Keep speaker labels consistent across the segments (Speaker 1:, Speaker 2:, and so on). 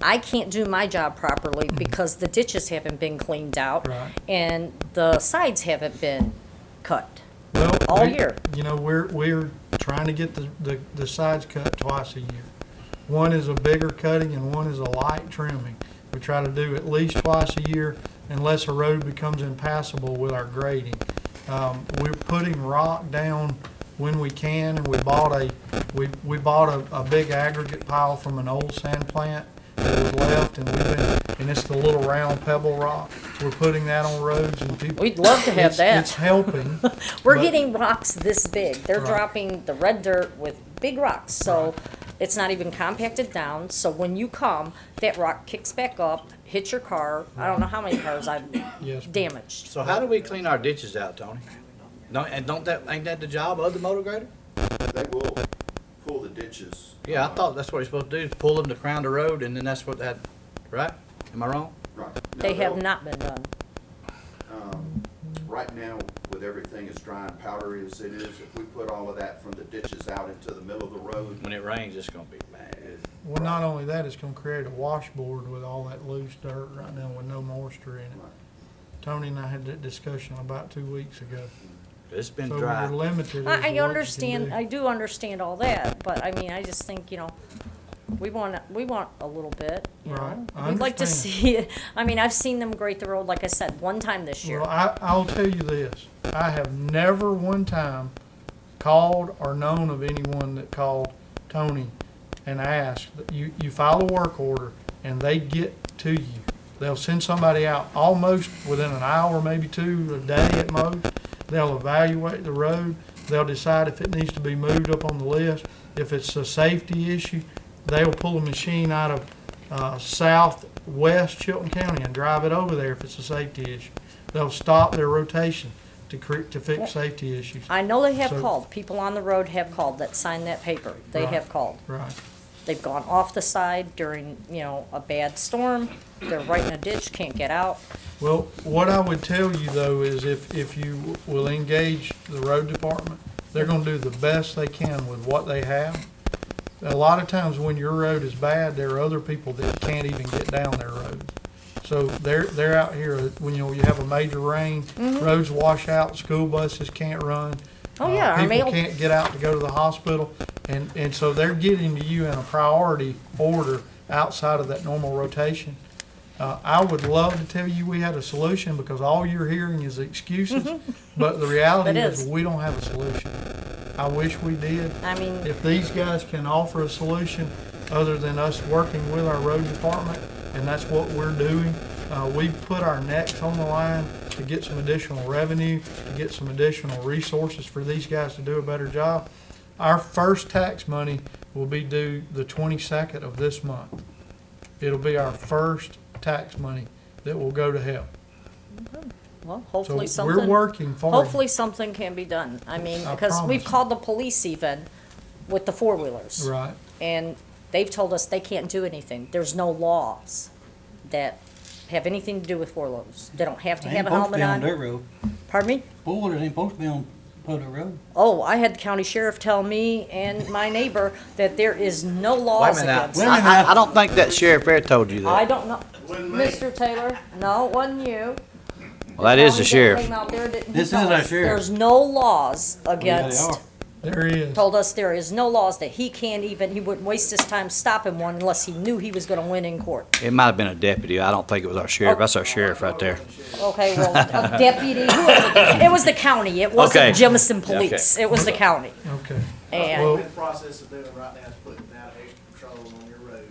Speaker 1: I can't do my job properly because the ditches haven't been cleaned out
Speaker 2: Mm-hmm. Right.
Speaker 1: and the sides haven't been cut.
Speaker 2: Well,
Speaker 1: All
Speaker 2: we-
Speaker 1: year.
Speaker 2: You know, we're, we're trying to get the, the, the sides cut twice a year. One is a bigger cutting and one is a light trimming. We try to do at least twice a year unless a road becomes impassable with our grading. Um, we're putting rock down when we can and we bought a, we, we bought a, a big aggregate pile from an old sand plant that was left and we've been, and it's the little round pebble rock. We're putting that on roads and people.
Speaker 1: We'd love to have
Speaker 2: It's-
Speaker 1: that.
Speaker 2: It's helping.
Speaker 1: We're
Speaker 2: but-
Speaker 1: getting rocks this big. They're
Speaker 2: Right.
Speaker 1: dropping the red dirt with big rocks, so it's not even compacted down. So when you come, that rock kicks back up, hits your car. I don't know how many cars I've
Speaker 2: Yes, ma'am.
Speaker 1: damaged.
Speaker 3: So how do we clean our ditches out, Tony? No, and don't that, ain't that the job of the motor grader?
Speaker 4: They will pull the ditches.
Speaker 3: Yeah, I
Speaker 4: uh,
Speaker 3: thought that's what he's supposed to do, is pull them to crown the road and then that's what that, right? Am I wrong?
Speaker 4: right. No,
Speaker 1: They have
Speaker 4: they'll-
Speaker 1: not been done.
Speaker 4: Right now, with everything as dry and powdery as it is, if we put all of that from the ditches out into the middle of the road,
Speaker 3: When it rains, it's gonna be bad.
Speaker 2: Well, not only that, it's gonna create a washboard with all that loose dirt right now with no moisture in it. Tony and I had that discussion about two weeks ago.
Speaker 3: It's been
Speaker 2: So we're
Speaker 3: dry.
Speaker 2: limited. as to what
Speaker 1: I,
Speaker 2: you
Speaker 1: I
Speaker 2: can
Speaker 1: understand,
Speaker 2: do.
Speaker 1: I do understand all that, but I mean, I just think, you know, we want, we want a little bit, you
Speaker 2: Right,
Speaker 1: know?
Speaker 2: I
Speaker 1: We'd like to
Speaker 2: understand.
Speaker 1: see, it. I mean, I've seen them grate the road, like I said, one time this year.
Speaker 2: Well, I, I'll tell you this, I have never one time called or known of anyone that called Tony and asked, you, you file a work order and they get to you. They'll send somebody out almost within an hour, maybe two, a day at most. They'll evaluate the road, they'll decide if it needs to be moved up on the list. If it's a safety issue, they'll pull a machine out of, uh, southwest Chilton County and drive it over there if it's a safety issue. They'll stop their rotation to cre- to fix safety issues.
Speaker 1: I know they have
Speaker 2: So-
Speaker 1: called, people on the road have called that signed that paper, they
Speaker 2: Right.
Speaker 1: have called.
Speaker 2: Right.
Speaker 1: They've gone off the side during, you know, a bad storm, they're right in a ditch, can't get out.
Speaker 2: Well, what I would tell you though is if, if you will engage the road department, they're gonna do the best they can with what they have. A lot of times when your road is bad, there are other people that can't even get down their road. So they're, they're out here, uh, when you, know, you have a major rain, roads wash out, school buses can't run.
Speaker 1: Mm-hmm. Oh,
Speaker 2: uh,
Speaker 1: yeah, our mail-
Speaker 2: People can't get out to go to the hospital, and, and so they're getting to you in a priority order outside of that normal rotation. Uh, I would love to tell you we had a solution because all you're hearing is excuses, but the reality
Speaker 1: That
Speaker 2: is
Speaker 1: is.
Speaker 2: we don't have a solution. I wish we did.
Speaker 1: I mean,
Speaker 2: If these guys can offer a solution other than us working with our road department, and that's what we're doing, uh, we put our necks on the line to get some additional revenue, to get some additional resources for these guys to do a better job. Our first tax money will be due the twenty-second of this month. It'll be our first tax money that will go to help.
Speaker 1: well,
Speaker 2: So
Speaker 1: hopefully something.
Speaker 2: we're working for it.
Speaker 1: Hopefully something can be done. I mean,
Speaker 2: I
Speaker 1: because we've
Speaker 2: promise.
Speaker 1: called the police even with the four-wheelers.
Speaker 2: Right.
Speaker 1: And they've told us they can't do anything. There's no laws that have anything to do with four-wheelers. They don't have to
Speaker 5: They
Speaker 1: have
Speaker 5: ain't
Speaker 1: a
Speaker 5: supposed to
Speaker 1: helmet
Speaker 5: be on
Speaker 1: on.
Speaker 5: dirt road.
Speaker 1: Pardon me?
Speaker 5: Borders ain't supposed to be on public road.
Speaker 1: Oh, I had the county sheriff tell me and my neighbor that there is no laws against.
Speaker 5: Wait a minute.
Speaker 3: I, I- I don't think that sheriff ever told you
Speaker 1: I
Speaker 3: that.
Speaker 1: don't know. Mr. Taylor, no, it wasn't you.
Speaker 3: Well, that is the sheriff.
Speaker 1: Came out there, didn't he
Speaker 5: This is
Speaker 1: tell
Speaker 5: our
Speaker 1: us
Speaker 5: sheriff.
Speaker 1: There's no laws
Speaker 5: Yeah, they
Speaker 1: against
Speaker 5: are.
Speaker 2: There is.
Speaker 1: told us there is no laws that he can't even, he wouldn't waste his time stopping one unless he knew he was gonna win in court.
Speaker 3: It might have been a deputy. I don't think it was our sheriff. That's our sheriff right there.
Speaker 1: Okay, well, a deputy, whoever- it was the county, it
Speaker 3: Okay.
Speaker 1: wasn't Jemison Police, it was the county.
Speaker 2: Okay.
Speaker 1: And
Speaker 2: Well-
Speaker 6: We're in the process of doing right now is putting out extra patrol on your road,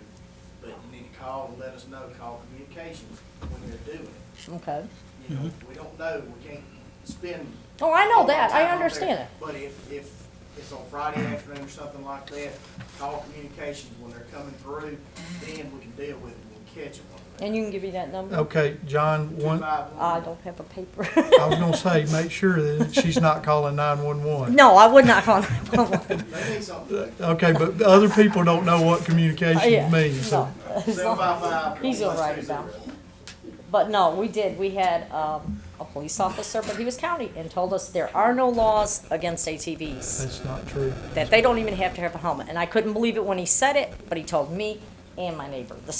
Speaker 6: but you need to call and let us know, call communications when you're doing it.
Speaker 1: Okay.
Speaker 6: You know, we don't know, we can't spend.
Speaker 1: Oh, Mm-hmm. I know that,
Speaker 6: time
Speaker 1: I
Speaker 6: out
Speaker 1: understand
Speaker 6: there.
Speaker 1: it.
Speaker 6: But if, if it's on Friday afternoon or something like that, call communications when they're coming through, then we can deal with it, we'll catch them.
Speaker 1: And you can give me that number?
Speaker 2: Okay, John, one,
Speaker 1: I
Speaker 6: 251.
Speaker 1: don't have a paper.
Speaker 2: I was gonna say, make sure that she's not calling nine-one-one.
Speaker 1: No, I would not call.
Speaker 6: They need something,
Speaker 2: Okay, but the other people don't know what communications means, so.
Speaker 1: No.
Speaker 6: seven five five.
Speaker 1: He's all right about it. But no, we did, we had, um, a police officer, but he was county and told us there are no laws against ATVs.
Speaker 2: That's not true.
Speaker 1: that they don't even have to have a helmet. And I couldn't believe it when he said it, but he told me and my neighbor the